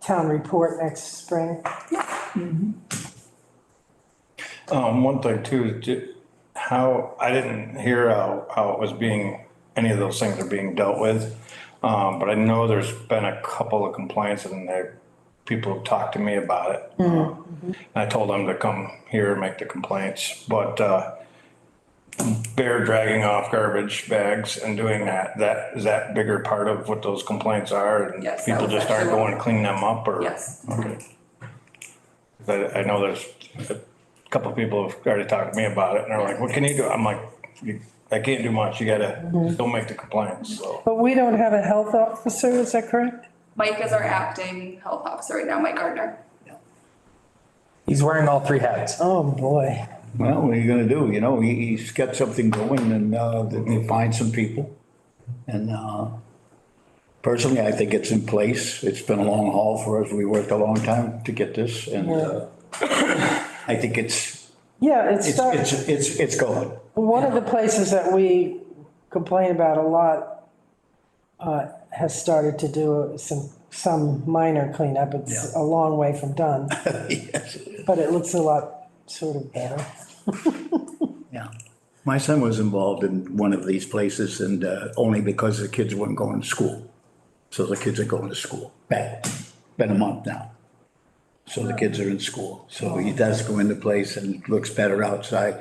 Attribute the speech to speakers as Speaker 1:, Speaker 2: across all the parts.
Speaker 1: town report next spring.
Speaker 2: Um, one thing too, is ju- how, I didn't hear how, how it was being, any of those things are being dealt with. Um, but I know there's been a couple of complaints and there, people have talked to me about it.
Speaker 3: Mm-hmm.
Speaker 2: Um, I told them to come here and make the complaints, but, uh, they're dragging off garbage bags and doing that, that, is that bigger part of what those complaints are? And
Speaker 3: Yes, that
Speaker 2: People
Speaker 3: was
Speaker 2: just aren't
Speaker 3: actually one.
Speaker 2: going to clean them up or?
Speaker 3: Yes.
Speaker 2: Okay. But I know there's a couple of people have already talked to me about it and they're like, what can you do? I'm like, "You- I can't do much. You gotta, don't make the complaints, so.
Speaker 1: But we don't have a health officer, is that correct?
Speaker 3: Mike is our acting health officer right now, Mike Gardner.
Speaker 4: He's wearing all three hats.
Speaker 1: Oh, boy.
Speaker 5: Well, what are you gonna do? You know, he, he's got something going and, uh, they- they find some people. And, uh, personally, I think it's in place. It's been a long haul for us. We worked a long time to get this and, uh, I think it's,
Speaker 1: Yeah, it
Speaker 5: it's,
Speaker 1: started.
Speaker 5: it's, it's, it's going.
Speaker 1: One of the places that we complain about a lot uh, has started to do some, some minor cleanup. It's a long way from done,
Speaker 5: Yes, it is.
Speaker 1: but it looks a lot sort of better.
Speaker 5: Yeah. My son was involved in one of these places and, uh, only because the kids weren't going to school. So the kids are going to school. Back, been a month now. So the kids are in school. So he does go into place and it looks better outside,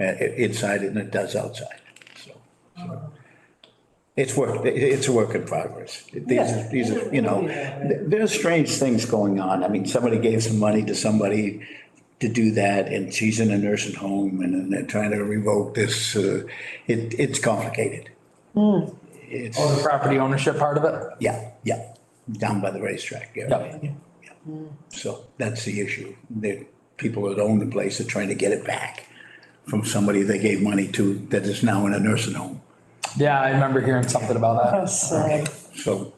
Speaker 5: uh, i- inside than it does outside. So, so. It's work, i- it's a work in progress. These,
Speaker 1: Yeah.
Speaker 5: are- these are, you know, th- there's strange things going on. I mean, somebody gave some money to somebody to do that and she's in a nursing home and then they're trying to revoke this. uh, It, it's complicated. It's.
Speaker 4: Oh, the property ownership part of it?
Speaker 5: Yeah, yeah, down by the racetrack, yeah.
Speaker 4: Yep.
Speaker 5: yeah, yeah. So that's the issue. The people that own the place are trying to get it back from somebody they gave money to that is now in a nursing home.
Speaker 4: Yeah, I remember hearing something about that.
Speaker 1: Oh, sorry.
Speaker 5: So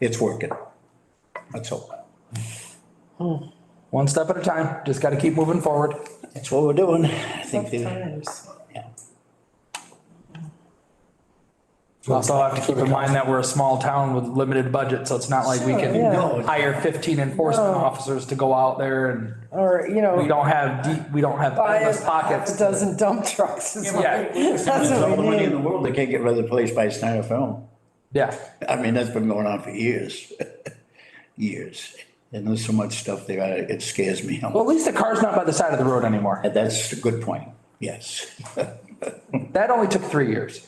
Speaker 5: it's working. Let's hope.
Speaker 4: One step at a time, just gotta keep moving forward.
Speaker 5: That's what we're doing. I think they,
Speaker 1: Times.
Speaker 5: yeah.
Speaker 4: Also, have to keep in mind that we're a small town with limited budget, so it's not like we
Speaker 1: Sure, yeah. Oh.
Speaker 4: can hire fifteen enforcement officers to go out there and
Speaker 1: Or, you know.
Speaker 4: we don't have deep, we don't have
Speaker 1: buy
Speaker 4: endless
Speaker 1: a half a
Speaker 4: pockets.
Speaker 1: dozen dump trucks. is what
Speaker 4: Yeah.
Speaker 1: we- That's
Speaker 5: There's all
Speaker 1: what
Speaker 5: the
Speaker 1: we
Speaker 5: money in
Speaker 1: need.
Speaker 5: the world. They can't get rid of the place by Snyder Film.
Speaker 4: Yeah,
Speaker 5: I mean, that's been going on for years, years. And there's so much stuff there, I- it scares me.
Speaker 4: well, at least the car's not by the side of the road anymore.
Speaker 5: And That's a good point, yes.
Speaker 4: That only took three years.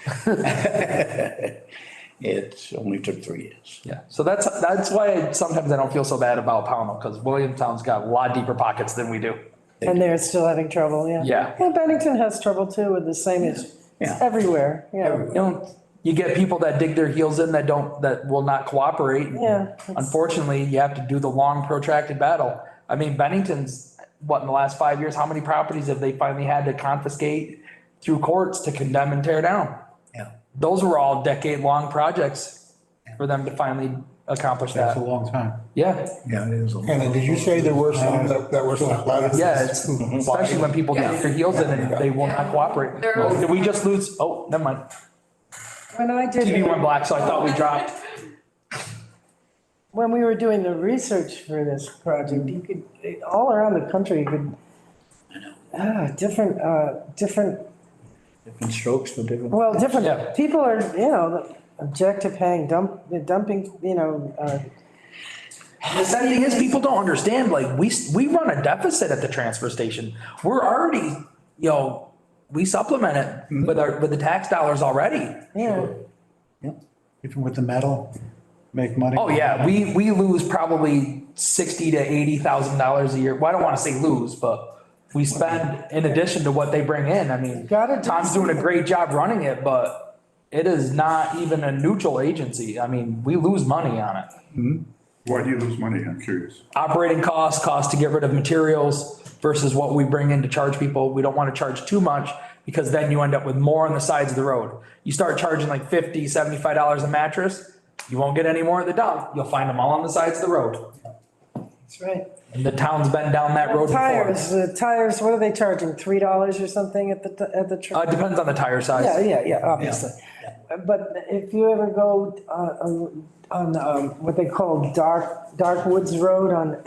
Speaker 5: It only took three years.
Speaker 4: Yeah, so that's, that's why sometimes I don't feel so bad about Pownell, because Williamstown's got a lot deeper pockets than we do.
Speaker 1: And they're still having trouble, yeah.
Speaker 4: Yeah.
Speaker 1: Well, Bennington has trouble too with the same, it's
Speaker 5: Yeah.
Speaker 1: it's everywhere, yeah.
Speaker 4: You know, you get people that dig their heels in that don't, that will not cooperate.
Speaker 1: Yeah.
Speaker 4: Unfortunately, you have to do the long protracted battle. I mean, Bennington's, what, in the last five years, how many properties have they finally had to confiscate through courts to condemn and tear down?
Speaker 5: Yeah,
Speaker 4: Those were all decade-long projects for them to finally accomplish
Speaker 6: That's a
Speaker 4: that.
Speaker 6: long time.
Speaker 4: Yeah,
Speaker 5: yeah, it is. a
Speaker 6: And did you say there were some that, that were not allowed?
Speaker 4: yeah, it's, especially when people get their heels in and they will not cooperate.
Speaker 3: There was-
Speaker 4: Did we just lose? Oh, never mind.
Speaker 1: When I
Speaker 4: TV
Speaker 1: did,
Speaker 4: went black, so I thought we dropped.
Speaker 1: when we were doing the research for this project, you could, all around the country, you could, ah, different, uh, different,
Speaker 5: Different strokes for different.
Speaker 1: well,
Speaker 4: Yeah.
Speaker 1: different, people are, you know, object to paying dump, the dumping, you know, uh,
Speaker 4: The sad thing is, people don't understand, like, we, we run a deficit at the transfer station. We're already, you know, we supplement it with our, with the tax dollars already.
Speaker 1: you know.
Speaker 6: Even with the metal, make money.
Speaker 4: Oh, yeah, we, we lose probably sixty to eighty thousand dollars a year. Well, I don't wanna say lose, but we spend in addition to what they bring in. I mean,
Speaker 1: Gotta do
Speaker 4: Tom's doing a great job running it, but it is not even a neutral agency. I mean, we lose money on it.
Speaker 7: Why do you lose money? I'm curious.
Speaker 4: operating costs, cost to get rid of materials versus what we bring in to charge people. We don't want to charge too much because then you end up with more on the sides of the road. You start charging like 50, 75 dollars a mattress, you won't get any more at the dump. You'll find them all on the sides of the road.
Speaker 1: That's right.
Speaker 4: And the town's been down that road
Speaker 1: Tires,
Speaker 4: before.
Speaker 1: the tires, what are they charging, three dollars or something at the, at the? tr-
Speaker 4: Uh, depends on the tire size.
Speaker 1: Yeah, yeah, yeah, obviously. but if you ever go uh, uh, on, um, what they call Dark, Dark Woods Road on